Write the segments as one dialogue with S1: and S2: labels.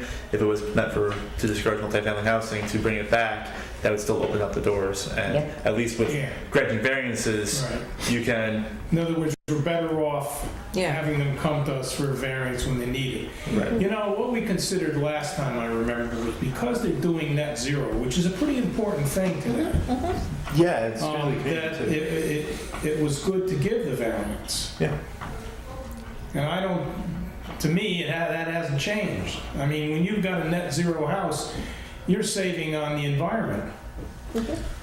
S1: if it was meant for, to discourage multifamily housing, to bring it back, that would still open up the doors. And
S2: Yeah.
S1: at least with
S3: Yeah.
S1: granting variances,
S3: Right.
S1: you can,
S3: In other words, we're better off
S2: Yeah.
S3: having them come to us for a variance when they need it. You know, what we considered last time, I remember, was because they're doing net zero, which is a pretty important thing to them,
S4: Yeah, it's really
S3: um,
S4: big,
S3: that
S4: too.
S3: it, it, it was good to give the variance.
S4: Yeah.
S3: And I don't, to me, it ha- that hasn't changed. I mean, when you've got a net zero house, you're saving on the environment.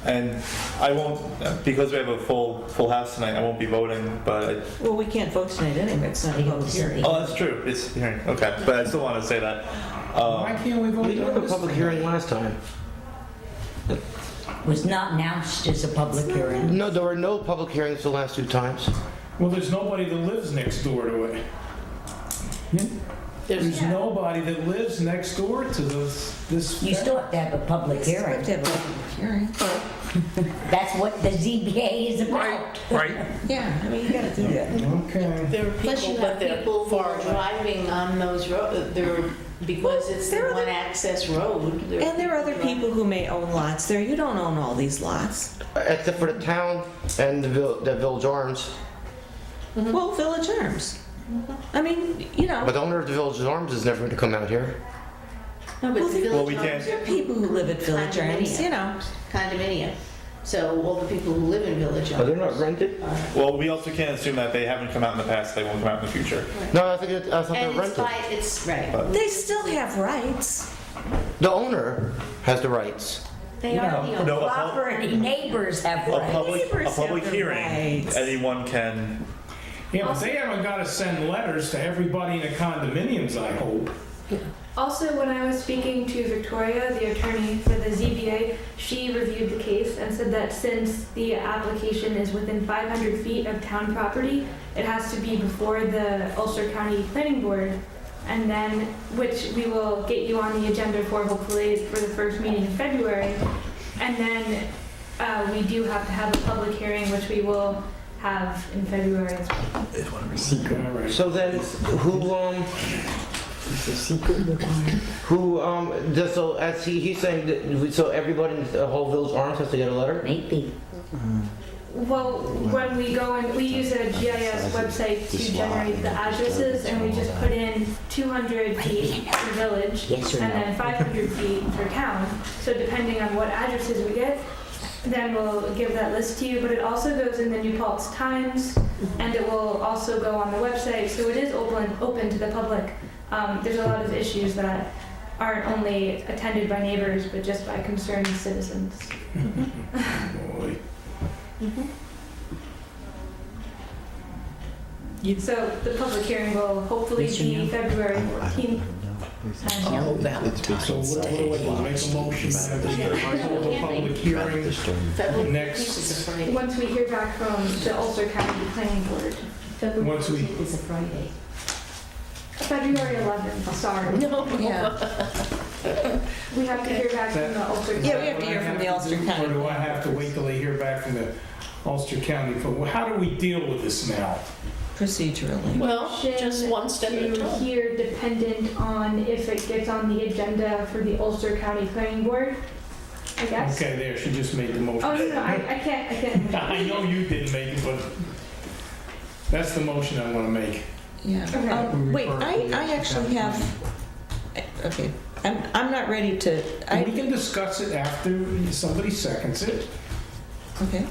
S1: and I won't, because we have a full, full house tonight, I won't be voting, but I
S2: Well, we can't vote tonight anyway, it's not a public hearing.
S1: Oh, that's true. It's hearing. Okay, but I still want to say that.
S3: Why
S1: Um,
S3: can't we vote
S5: We had
S3: on
S5: a
S3: this?
S5: public
S3: thing?
S5: hearing last time.
S2: Was not announced as a public hearing.
S5: No, there were no public hearings the last two times.
S3: Well, there's nobody that lives next door to it. There's
S2: Mm-hmm.
S3: nobody that lives next door to this, this.
S6: You still have to have a public hearing.
S2: have a public hearing.
S6: That's what the ZBA is about.
S2: Yeah, I mean, you gotta do that.
S3: Okay.
S7: There are
S8: Plus you
S7: people, but
S8: have
S7: they're
S8: people who
S7: far
S8: are
S7: away.
S8: driving on those roads, they're, because it's the
S2: there are
S8: one access road.
S2: And there are other
S8: driving.
S2: people who may own lots there, you don't own all these lots.
S5: Except for the town and the vil- the Village Arms.
S2: Well, Village Arms. I mean, you know,
S5: But the owner of the Village Arms is never going to come out here.
S8: No,
S2: Well,
S8: but the
S2: there-
S1: Well, we
S8: village
S1: can't-
S8: homes
S2: there are people who live at Village Arms, you know.
S8: Condominium. So all the people who live in village
S5: Oh,
S8: homes.
S5: they're not rented?
S1: well, we also can't assume that they haven't come out in the past. They won't come out in the future.
S5: No, I think it- I thought they're Uh,
S8: And it's
S5: rented.
S8: by, it's, right.
S2: They still have rights.
S5: The owner has the rights.
S8: They are the
S1: No,
S8: only.
S1: a pub-
S6: Property neighbors have
S1: a
S6: rights.
S1: public, a
S2: Neighbors
S1: public
S2: have the
S1: hearing.
S2: rights.
S1: Anyone can.
S3: Yeah, but they haven't got to send letters to everybody in the condominiums, I hope.
S9: Also, when I was speaking to Victoria, the attorney for the ZBA, she reviewed the case and said that since the application is within 500 feet of town property, it has to be before the Ulster County Planning Board, and then, which we will get you on the agenda for hopefully for the first meeting in February. And then uh, we do have to have a public hearing, which we will have in February as well.
S3: All right.
S5: So then, who, um, who, um, does- so as he, he's saying that, so everybody in the whole Village Arms has to get a letter?
S6: Maybe.
S9: Well, when we go and, we use a GIS website to generate the addresses, and we just put in 200 feet for village,
S6: Yes or
S9: and
S6: no?
S9: then 500 feet for town. So depending on what addresses we get, then we'll give that list to you, but it also goes in the New Paltz Times, and it will also go on the website, so it is open, open to the public. Um, There's a lot of issues that aren't only attended by neighbors, but just by concerned citizens.
S3: Boy.
S9: So the public hearing will hopefully
S6: Yes or no?
S9: be February 14th. And-
S6: No Valentine's
S3: So what do we
S6: Day.
S3: do? Make a motion that we hold a public hearing
S8: Federal
S3: Next.
S8: use is a Friday.
S9: Once we hear back from the Ulster County Planning Board,
S3: once we,
S8: It's a Friday.
S9: February 11th, sorry.
S2: Yeah.
S9: We have to hear back from the Ulster.
S3: Is
S2: Yeah,
S3: that
S2: we have to
S3: what I
S2: hear from the
S3: to
S2: Ulster
S3: do,
S2: County.
S3: Or do I have to wait till I hear back from the Ulster County? But how do we deal with this now?
S2: Procedurally.
S7: Well, just one step at a
S9: To
S7: time.
S9: hear dependent on if it gets on the agenda for the Ulster County Planning Board, I guess.
S3: Okay, there, she just made the motion.
S9: Oh, no, no, I I can't, I can't.
S3: I know you didn't make it, but that's the motion I want to make.
S9: Okay.
S2: Yeah. Um, Wait, I, I actually have, okay, I'm, I'm not ready to, I,
S3: We can discuss it after somebody seconds it.
S2: okay.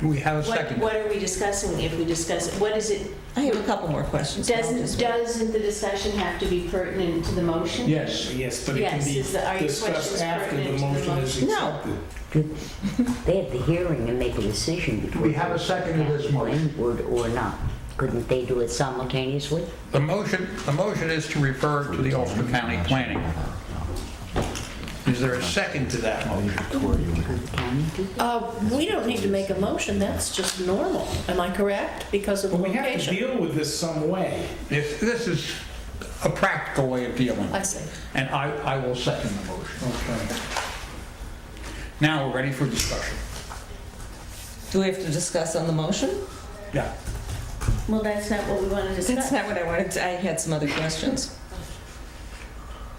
S8: What, what are we discussing if we discuss, it? what is it,
S2: I have a couple more questions. but I'll
S8: doesn't,
S2: just-
S8: doesn't the discussion have to be pertinent to the motion?
S3: Yes. Yes, but it can
S8: Yes,
S3: be
S8: is the, are your
S3: discussed
S8: questions
S3: after the
S8: pertinent to the
S3: motion is
S8: motion?
S2: No.
S3: accepted.
S6: They have the hearing and make a decision before.
S10: We have a second to this motion.
S6: Would or not. Couldn't they do it simultaneously?
S10: The motion, the motion is to refer to the Ulster County Planning. Is there a second to that motion?
S7: Uh, We don't need to make a motion, that's just normal. Am I correct? Because of the
S3: But we have to
S7: location.
S3: deal with this some way.
S10: This, this is a practical way of dealing
S7: I
S10: with
S7: see.
S10: it. And I, I will second the motion.
S3: Okay.
S10: Now we're ready for discussion.
S2: Do we have to discuss on the motion?
S10: Yeah.
S8: Well, that's not what we want to discuss.
S2: That's not what I wanted, to- I had some other questions.